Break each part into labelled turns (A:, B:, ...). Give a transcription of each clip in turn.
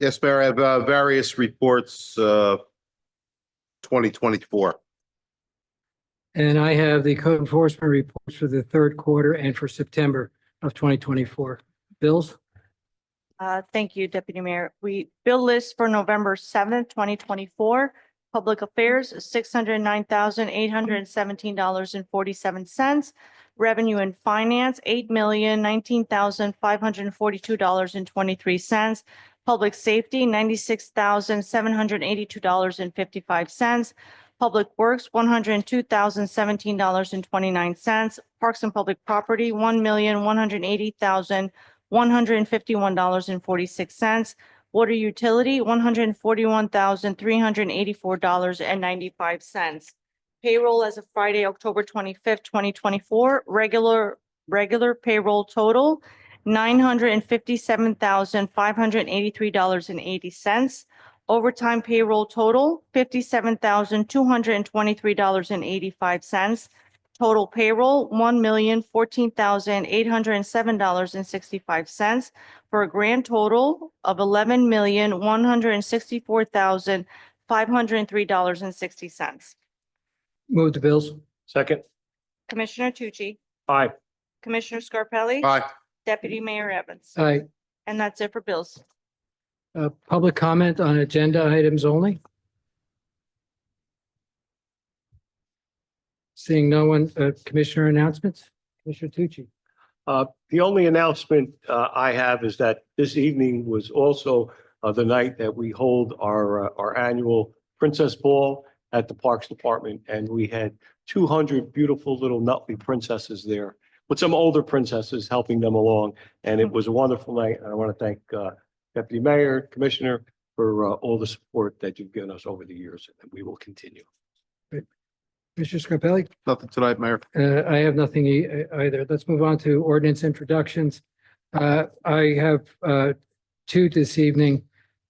A: Yes, Mayor, I have uh, various reports, uh, 2024.
B: And I have the code enforcement reports for the third quarter and for September of twenty twenty-four. Bills,
C: Uh, Thank you, Deputy Mayor. We bill list for November seventh, twenty twenty-four. Public Affairs, six hundred nine thousand eight hundred seventeen dollars and forty-seven cents. Revenue and Finance, eight million nineteen thousand five hundred forty-two dollars and twenty-three cents. Public Safety, ninety-six thousand seven hundred eighty-two dollars and fifty-five cents. Public Works, one hundred two thousand seventeen dollars and twenty-nine cents. Parks and Public Property, one million one hundred eighty thousand one hundred and fifty-one dollars and forty-six cents. Water utility, one hundred and forty-one thousand, three hundred and eighty-four dollars and ninety-five cents. Payroll as of Friday, October twenty-fifth, twenty twenty-four, regular, regular payroll total, nine hundred and fifty-seven thousand, five hundred and eighty-three dollars and eighty cents. Overtime payroll total, fifty-seven thousand, two hundred and twenty-three dollars and eighty-five cents. Total payroll, one million fourteen thousand eight hundred and seven dollars and sixty-five cents for a grand total of eleven million one hundred and sixty-four thousand five hundred and three dollars and sixty cents.
B: move the bills.
D: Second.
C: Commissioner Tucci,
D: Aye.
C: Commissioner Scarpelli,
A: Aye.
C: Deputy Mayor Evans.
B: Aye.
C: And that's it for bills.
B: Uh, public comment on agenda items only. Seeing no one, uh, Commissioner announcements, Commissioner Tucci.
D: Uh, The only announcement uh, I have is that this evening was also uh, the night that we hold our, uh, our annual Princess Ball at the Parks Department, and we had two hundred beautiful little Nutley princesses there with some older princesses helping them along, and it was a wonderful night. And I want to thank uh, Deputy Mayor, Commissioner, for uh, all the support that you've given us over the years, and we will continue.
B: Commissioner Scarpelli?
A: Nothing tonight, Mayor.
B: Uh, I have nothing e- either. Let's move on to ordinance introductions. Uh, I have, uh, two this evening.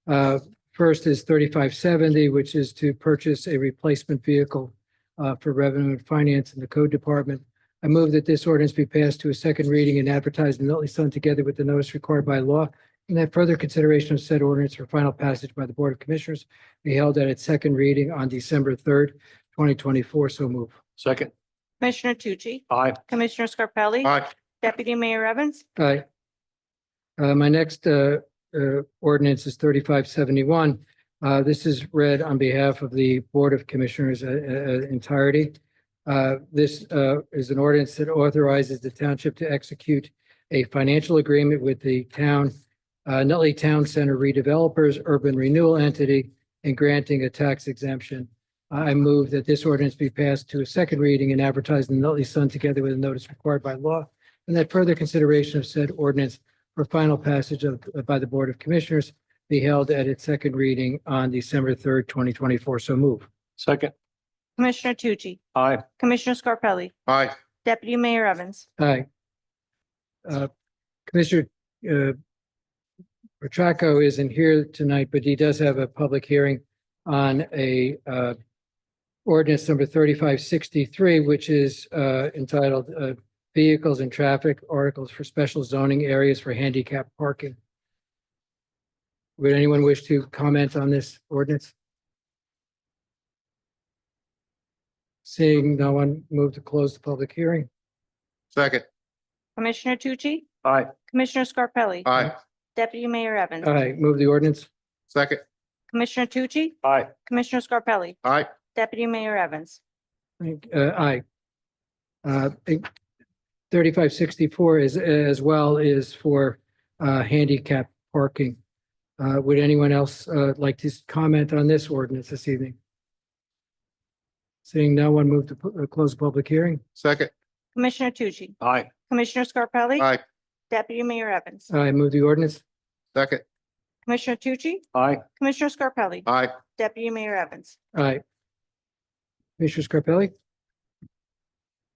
B: Uh, first is thirty-five seventy, which is to purchase a replacement vehicle, uh, for revenue and finance in the code department. I move that this ordinance be passed to a second reading and advertised in the Nutley Sun together with the notice required by law. And that further consideration of said ordinance for final passage by the Board of Commissioners be held at its second reading on December third, twenty twenty-four. So move.
D: Second,
C: Commissioner Tucci,
D: aye.
C: Commissioner Scarpelli,
A: Aye.
C: Deputy Mayor Evans.
B: Aye. Uh, my next, uh, uh, ordinance is thirty-five seventy-one. Uh, this is read on behalf of the Board of Commissioners, uh, uh, entirety. Uh, this, uh, is an ordinance that authorizes the township to execute a financial agreement with the town, uh, Nutley Town Center Redevelopers Urban Renewal Entity and granting a tax exemption. I move that this ordinance be passed to a second reading and advertised in the Nutley Sun together with a notice required by law and that further consideration of said ordinance for final passage of, by the Board of Commissioners be held at its second reading on December third, twenty twenty-four. So move.
D: Second,
C: Commissioner Tucci,
D: aye.
C: Commissioner Scarpelli,
A: Aye.
C: Deputy Mayor Evans.
B: Aye. Uh, Commissioner, uh, Petracco isn't here tonight, but he does have a public hearing on a, uh, ordinance number thirty-five sixty-three, which is, uh, entitled, uh, Vehicles and Traffic Articles for Special Zoning Areas for Handicap Parking. Would anyone wish to comment on this ordinance? Seeing no one, move to close the public hearing.
A: Second.
C: Commissioner Tucci,
D: Aye.
C: Commissioner Scarpelli,
A: Aye.
C: Deputy Mayor Evans.
B: Aye, move the ordinance.
A: Second.
C: Commissioner Tucci,
D: Aye.
C: Commissioner Scarpelli,
A: Aye.
C: Deputy Mayor Evans.
B: Uh, aye. Uh, thirty-five sixty-four is, as well is for, uh, handicap parking. Uh, would anyone else, uh, like to comment on this ordinance this evening? Seeing no one, move to pu- uh, close the public hearing.
A: Second.
C: Commissioner Tucci,
D: Aye.
C: Commissioner Scarpelli.
A: Aye.
C: Deputy Mayor Evans.
B: I move the ordinance.
A: Second.
C: Commissioner Tucci,
D: Aye.
C: Commissioner Scarpelli,
A: Aye.
C: Deputy Mayor Evans.
B: Aye. Commissioner Scarpelli?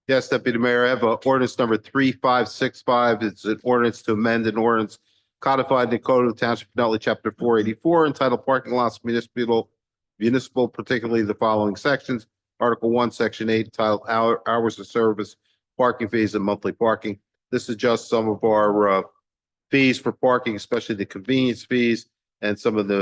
A: Yes, Deputy Mayor, I have uh, ordinance number 3565. It's an ordinance to amend an ordinance codified in the Code of the Township of Nutley, Chapter 484, entitled Parking Lots Municipal, Municipal, particularly the following sections. Article 1, Section 8, titled Hour- Hours of Service, Parking Fees and Monthly Parking. This is just some of our uh, fees for parking, especially the convenience fees and some of the